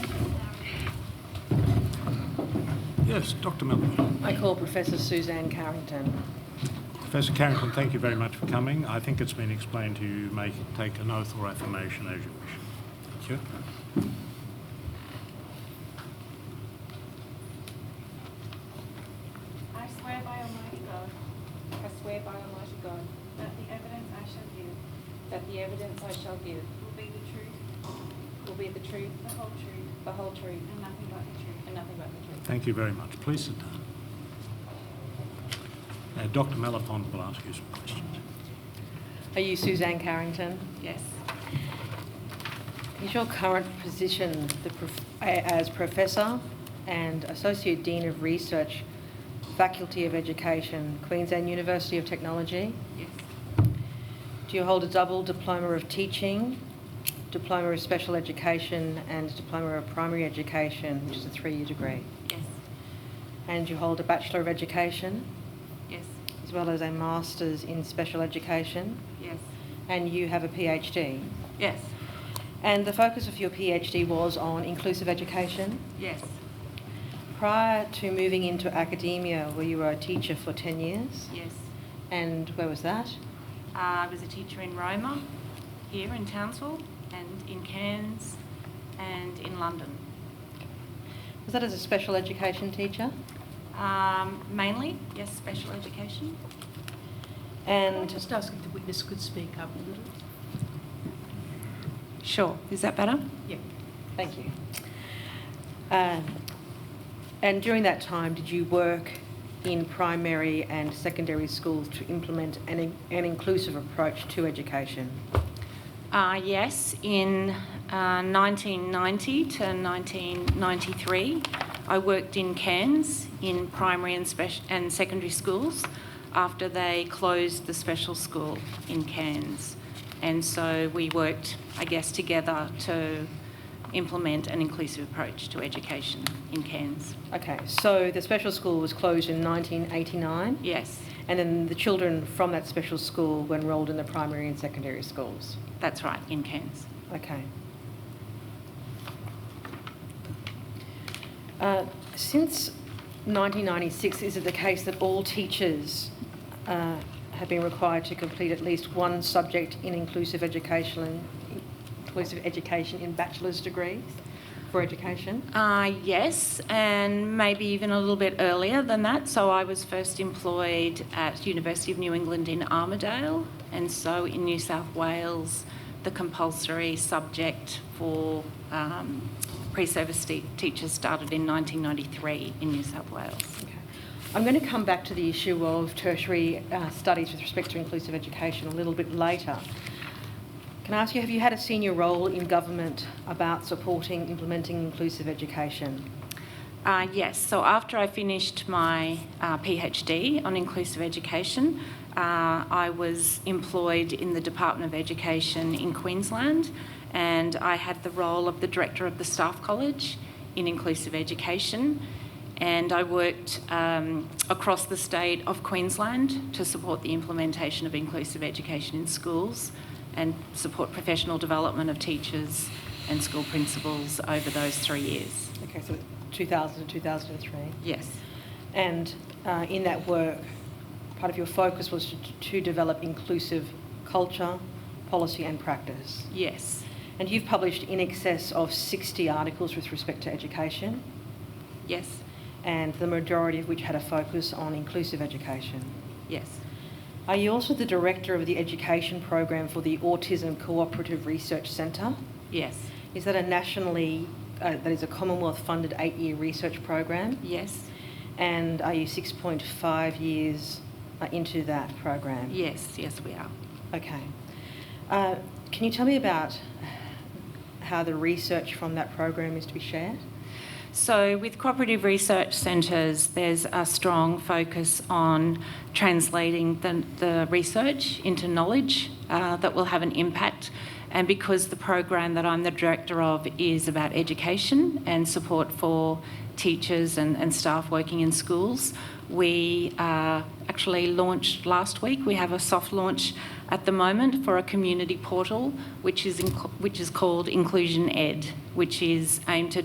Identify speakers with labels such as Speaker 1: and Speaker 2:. Speaker 1: Yes, Dr Miller.
Speaker 2: I call Professor Suzanne Carrington.
Speaker 1: Professor Carrington, thank you very much for coming. I think it's been explained to you. You may take an oath or affirmation as you wish. Thank you.
Speaker 3: I swear by Almighty God,
Speaker 4: I swear by Almighty God
Speaker 3: that the evidence I shall give
Speaker 4: that the evidence I shall give
Speaker 3: will be the truth,
Speaker 4: will be the truth,
Speaker 3: the whole truth,
Speaker 4: the whole truth,
Speaker 3: and nothing but the truth.
Speaker 4: and nothing but the truth.
Speaker 1: Thank you very much. Please sit down. Uh, Now, Dr Malafont will ask you some questions.
Speaker 2: Are you Suzanne Carrington?
Speaker 3: Yes,
Speaker 2: Is your current position the prof- a- as Professor and Associate Dean of Research, Faculty of Education, Queensland University of Technology?
Speaker 3: yes,
Speaker 2: Do you hold a double diploma of teaching, diploma of special education, and diploma of primary education, which is a three-year degree?
Speaker 3: yes,
Speaker 2: And you hold a Bachelor of Education,
Speaker 3: yes,
Speaker 2: as well as a Master's in Special Education,
Speaker 3: yes,
Speaker 2: and you have a PhD?
Speaker 3: yes,
Speaker 2: And the focus of your PhD was on inclusive education.
Speaker 3: yes,
Speaker 2: Prior to moving into academia, where you were a teacher for 10 years,
Speaker 3: yes.
Speaker 2: and where was that?
Speaker 3: Uh, I was a teacher in Roma, here in Townsville, and in Cairns, and in London.
Speaker 2: Was that as a special education teacher?
Speaker 3: Um, mainly, yes, special education.
Speaker 5: Can I
Speaker 2: And
Speaker 5: just ask if the witness could speak up a little?
Speaker 3: Sure, is that better?
Speaker 5: Yeah.
Speaker 2: thank you. Um, and during that time, did you work in primary and secondary schools to implement an, in- an inclusive approach to education?
Speaker 3: Uh, yes, in uh, 1990 to 1993, I worked in Cairns in primary and, spec- and secondary schools after they closed the special school in Cairns. And so we worked, I guess, together to implement an inclusive approach to education in Cairns.
Speaker 2: Okay, so the special school was closed in 1989?
Speaker 3: Yes,
Speaker 2: And then the children from that special school were enrolled in the primary and secondary schools.
Speaker 3: that's right, in Cairns.
Speaker 2: Okay. Uh, Since 1996, is it the case that all teachers uh, have been required to complete at least one subject in inclusive education, inclusive education in bachelor's degrees for education?
Speaker 3: Uh, yes, and maybe even a little bit earlier than that. So I was first employed at University of New England in Armidale, and so in New South Wales, the compulsory subject for um, pre-service te- teachers started in 1993 in New South Wales.
Speaker 2: Okay. I'm going to come back to the issue of tertiary uh, studies with respect to inclusive education a little bit later. Can I ask you, have you had a senior role in government about supporting implementing inclusive education?
Speaker 3: Uh, yes, so after I finished my uh, PhD on inclusive education, uh, I was employed in the Department of Education in Queensland and I had the role of the Director of the Staff College in Inclusive Education. And I worked um, across the state of Queensland to support the implementation of inclusive education in schools and support professional development of teachers and school principals over those three years.
Speaker 2: Okay, so 2000 to 2003.
Speaker 3: Yes.
Speaker 2: And uh, in that work, part of your focus was to, to develop inclusive culture, policy, and practice.
Speaker 3: Yes,
Speaker 2: And you've published in excess of 60 articles with respect to education.
Speaker 3: yes,
Speaker 2: and the majority of which had a focus on inclusive education.
Speaker 3: yes.
Speaker 2: Are you also the director of the education program for the Autism Cooperative Research Centre?
Speaker 3: Yes,
Speaker 2: Is that a nationally, uh, that is a Commonwealth funded eight year research program?
Speaker 3: yes,
Speaker 2: And are you 6.5 years uh, into that program?
Speaker 3: yes, yes, we are.
Speaker 2: Okay. Uh, can you tell me about how the research from that program is to be shared?
Speaker 3: So, with cooperative research centres, there's a strong focus on translating the, the research into knowledge uh, that will have an impact. And because the program that I'm the director of is about education and support for teachers and, and staff working in schools, we uh, actually launched last week. We have a soft launch at the moment for a community portal, which is, inc- which is called Inclusion Ed, which is aimed to